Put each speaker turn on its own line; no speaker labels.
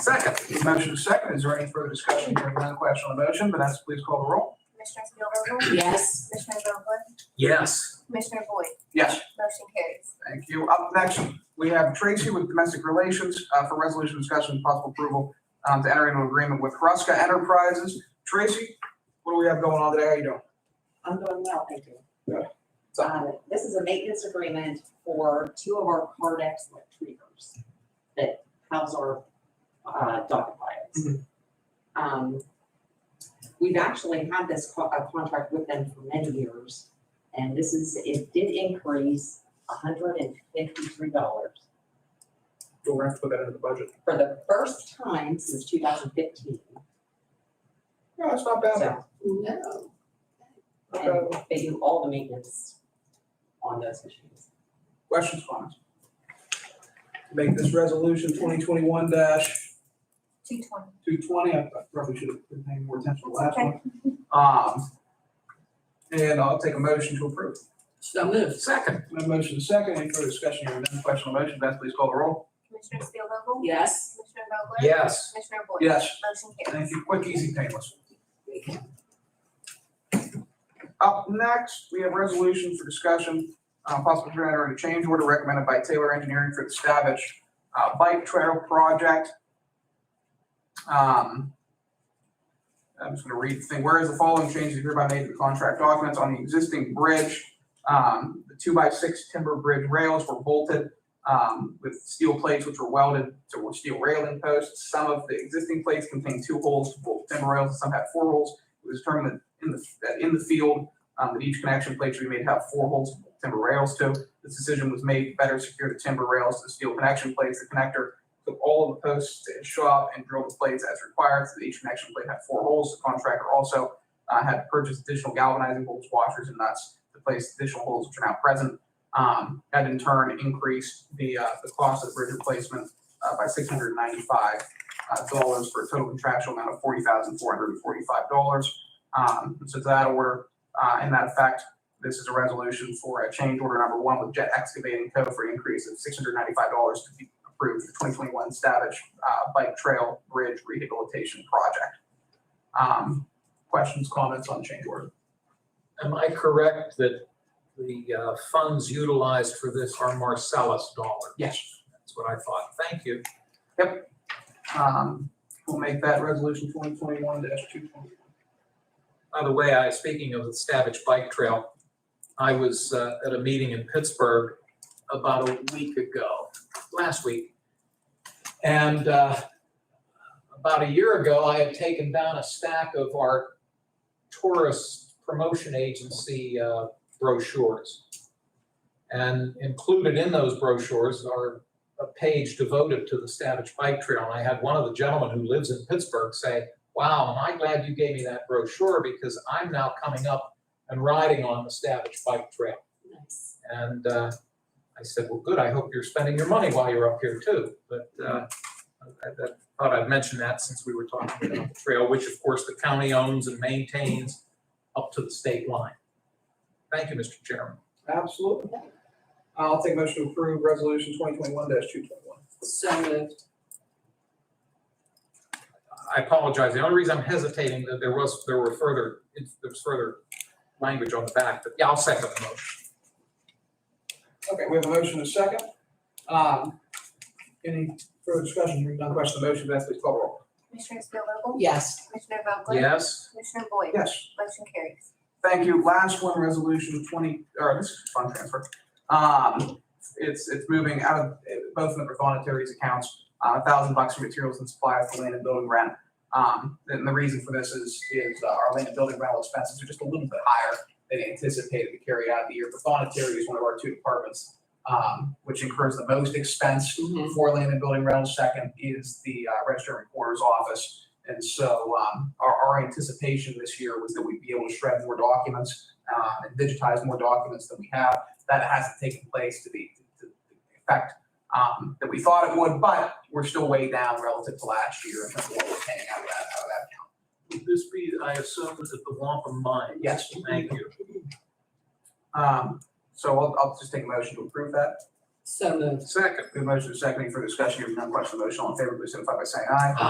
Second, motion is second. Is there any further discussion? Hearing none, question on the motion. Vanessa, please call the roll.
Commissioner Spielvogel?
Yes.
Commissioner Vogler?
Yes.
Commissioner Boyd?
Yes.
Motion carries.
Thank you. Up next, we have Tracy with Domestic Relations uh, for resolution discussion and possible approval um, to enter into agreement with Ruska Enterprises. Tracy, what do we have going on today? How you doing?
I'm doing well, thank you.
So-
Um, this is a maintenance agreement for two of our Cardex retrievers that house our, uh, dog files. Um, we've actually had this co- a contract with them for many years, and this is, it did increase hundred and fifty-three dollars
We're gonna have to put that into the budget.
for the first time since two thousand fifteen.
No, it's not bad.
So, no,
Not bad.
and they do all the maintenance on those machines.
Questions, comments? Make this resolution twenty twenty-one
Two twenty.
two twenty, I I probably should have been paying more attention to the last
Okay.
one. Um, and I'll take a motion to approve.
So moved. Second.
No motion is second, any further discussion, hearing none, question on the motion, Beth, please call the roll.
Commissioner Spielvogel?
Yes.
Commissioner Vogler?
Yes.
Commissioner Boyd?
Yes.
Motion carries.
Thank you, quick, easy, painless. Up next, we have resolution for discussion, uh, possible to enter a change order recommended by Taylor Engineering for the Stavish, uh, bike trail project. Um, I'm just gonna read the thing, whereas the following changes hereby made to the contract documents on the existing bridge, um, the two by six timber bridge rails were bolted, um, with steel plates which were welded to steel railing posts. Some of the existing plates contained two holes to bolt timber rails, and some had four holes. It was determined that in the, that in the field, um, that each connection plate should be made to have four holes of timber rails to. This decision was made to better secure the timber rails to the steel connection plates. The connector took all of the posts to his shop and drilled the plates as required, so that each connection plate had four holes. The contractor also, uh, had purchased additional galvanizing bolts, washers, and nuts to place additional holes which are now present. Um, that in turn increased the, uh, the cost of the bridge replacement, uh, by six hundred ninety-five, uh, dollars for a total contractual amount of forty thousand, four hundred and forty-five dollars. Um, so to that order, uh, in that effect, this is a resolution for a change order number one with Jet Excavating Co. for an increase of six hundred ninety-five dollars to be approved for twenty twenty-one Stavish, uh, Bike Trail Bridge Rehabilitation Project. Um, questions, comments on change order?
Am I correct that the uh, funds utilized for this are Marcellus dollars?
Yes.
That's what I thought. Thank you.
Um, we'll make that resolution twenty twenty-one two twenty-one.
By the way, I, speaking of the Stabbage Bike Trail, I was uh, at a meeting in Pittsburgh about a week ago, last week. And uh, about a year ago, I had taken down a stack of our tourist promotion agency uh, brochures. And included in those brochures are a page devoted to the Stabbage Bike Trail. And I had one of the gentlemen who lives in Pittsburgh say, wow, am I glad you gave me that brochure because I'm now coming up and riding on the Stavish Bike Trail.
Nice.
And uh, I said, well, good, I hope you're spending your money while you're up here too. But uh, I I thought I'd mention that since we were talking about the trail, which of course the county owns and maintains up to the state line. Thank you, Mr. Chairman.
Absolutely. I'll take motion to approve resolution twenty twenty-one two twenty-one.
So moved.
I apologize. The only reason I'm hesitating, that there was, there were further, there was further language on the back, but yeah, I'll second the motion.
Okay, we have a motion and a second. Um, any further discussion, hearing none, question on the motion, Vanessa, please call the roll.
Commissioner Spielvogel?
Yes.
Commissioner Vogler?
Yes?
Commissioner Boyd?
Yes.
Motion carries.
Thank you. Last one, resolution twenty, or this is fund transfer. Um, it's, it's moving out of, eh, both of the voluntaries accounts, Uh, a thousand bucks for materials and supplies to land and building rent. Um, and the reason for this is, is uh, our land and building rental expenses are just a little bit higher than anticipated to carry out the year. But voluntary is one of our two departments, um, which incurs the most expense for land and building rental, second is the uh, register and recorder's office. And so um, our, our anticipation this year was that we'd be able to shred more documents uh, and digitize more documents than we have. That hasn't taken place to the, to the effect um, that we thought it would, but we're still way down relative to last year in terms of what we're paying out of that, out of that
Would this be, I assume, is it the Wampum Mine?
Yes.
Thank you.
account. Um, So I'll, I'll just take a motion to approve that.
So moved.
Second.
We have motion seconding for discussion. If none question on the motion, all in favor, please signify by saying aye.